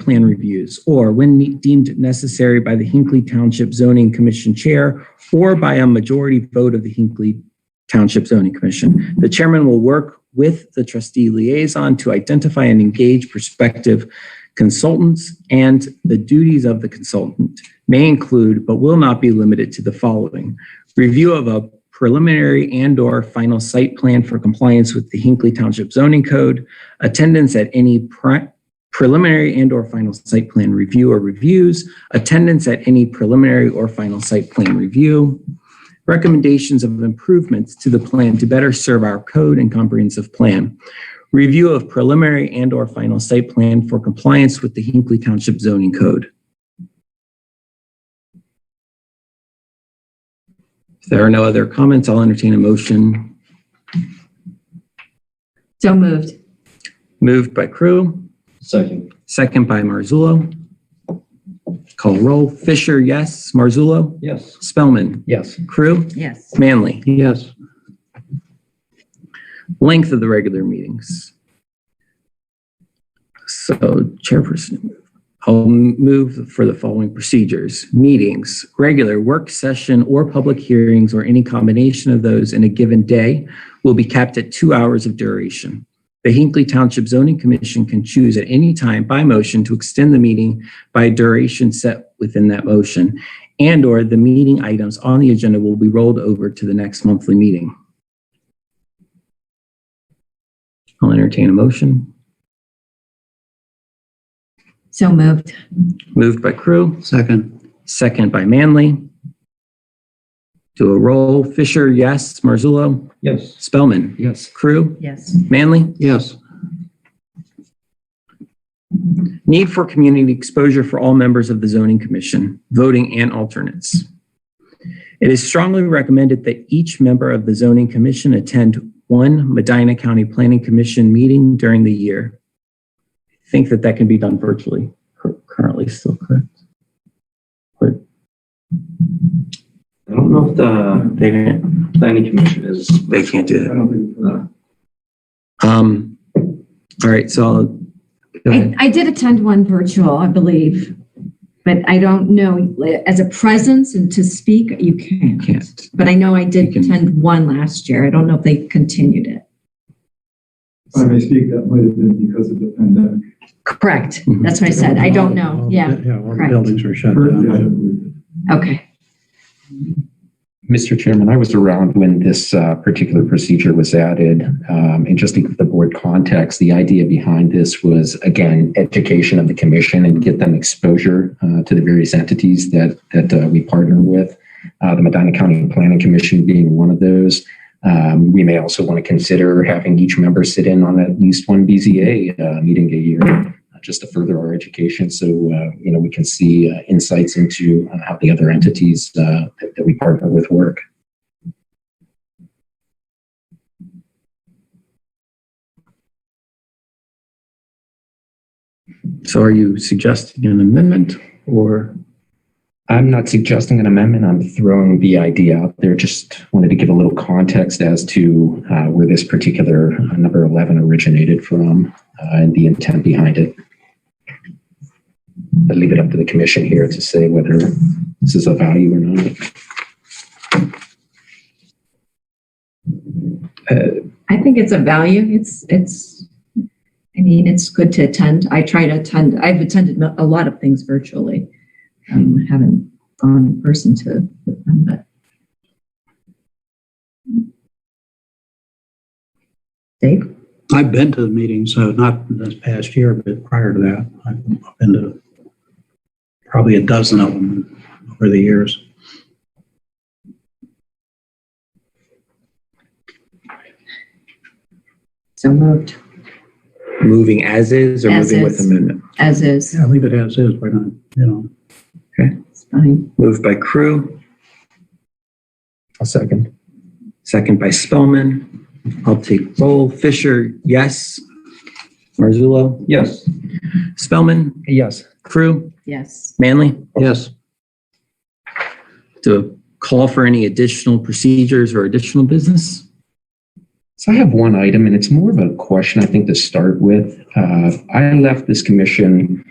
plan reviews, or when ne- deemed necessary by the Hinkley Township Zoning Commission Chair or by a majority vote of the Hinkley Township Zoning Commission. The chairman will work with the trustee liaison to identify and engage prospective consultants, and the duties of the consultant may include, but will not be limited to, the following: review of a preliminary and/or final site plan for compliance with the Hinkley Township Zoning Code, attendance at any pri- preliminary and/or final site plan review or reviews, attendance at any preliminary or final site plan review, recommendations of improvements to the plan to better serve our code and comprehensive plan, review of preliminary and/or final site plan for compliance with the Hinkley Township zoning code. If there are no other comments, I'll entertain a motion. So moved. Moved by Crew, Second. second by Marzullo. Call roll. Fisher, yes. Marzullo? Yes. Spellman? Yes. Crew? Yes. Manley? Yes. length of the regular meetings. So chairperson, I'll move for the following procedures. Meetings, regular work session or public hearings or any combination of those in a given day will be capped at two hours of duration. The Hinkley Township Zoning Commission can choose at any time by motion to extend the meeting by a duration set within that motion and/or the meeting items on the agenda will be rolled over to the next monthly meeting. I'll entertain a motion. So moved. Moved by Crew, Second. second by Manley. Do a roll. Fisher, yes. Marzullo, Yes. Spellman, Yes. Crew, Yes. Manley. Yes. Need for community exposure for all members of the zoning commission, voting and alternates. It is strongly recommended that each member of the zoning commission attend one Medina County Planning Commission meeting during the year. I Think that that can be done virtually cur- currently still, correct? I don't know if the They can't, planning commission is. they can't do that. I don't think, uh, Um, all right, so I'll, go I, ahead. I did attend one virtual, I believe, but I don't know, as a presence and to speak, you You can't. can't. But I know I did You can- attend one last year. I don't know if they continued it. If I may speak, that might have been because of the pandemic. Correct. Mhm. That's what I said. I don't know. Yeah. Yeah, all the correct. buildings were shut Currently, I down. don't believe it. Okay. Mr. Chairman, I was around when this uh, particular procedure was added. Um, And just to give the board context, the idea behind this was, again, education of the commission and get them exposure uh, to the various entities that, that uh, we partner with. Uh, The Medina County Planning Commission being one of those. Um, We may also want to consider having each member sit in on at least one BZA uh, meeting a year, uh, just to further our education. So, uh, you know, we can see uh, insights into uh, how the other entities uh, that that we partner with work. So are you suggesting an amendment or? I'm not suggesting an amendment. I'm throwing the idea out there. Just wanted to give a little context as to uh, where this particular uh, number 11 originated from uh, and the intent behind it. I leave it up to the commission here to say whether this is of value or not. I think it's a value. It's, it's, I mean, it's good to attend. I try to attend. I've attended a lot of things virtually. Um, haven't gone in person to, them, but. Dave? I've been to the meetings, so not this past year, but prior to that, I've been to probably a dozen of them over the years. So moved, Moving as is or As moving with is. amendment? as is. Yeah, leave it as is, why not, you know? It's fine. Moved by Crew, A second. second by Spellman. I'll take roll. Fisher, yes. Marzullo, Yes. Spellman, Yes. Crew, Yes. Manley. Yes. To call for any additional procedures or additional business? So I have one item, and it's more of a question, I think, to start with. Uh, I left this commission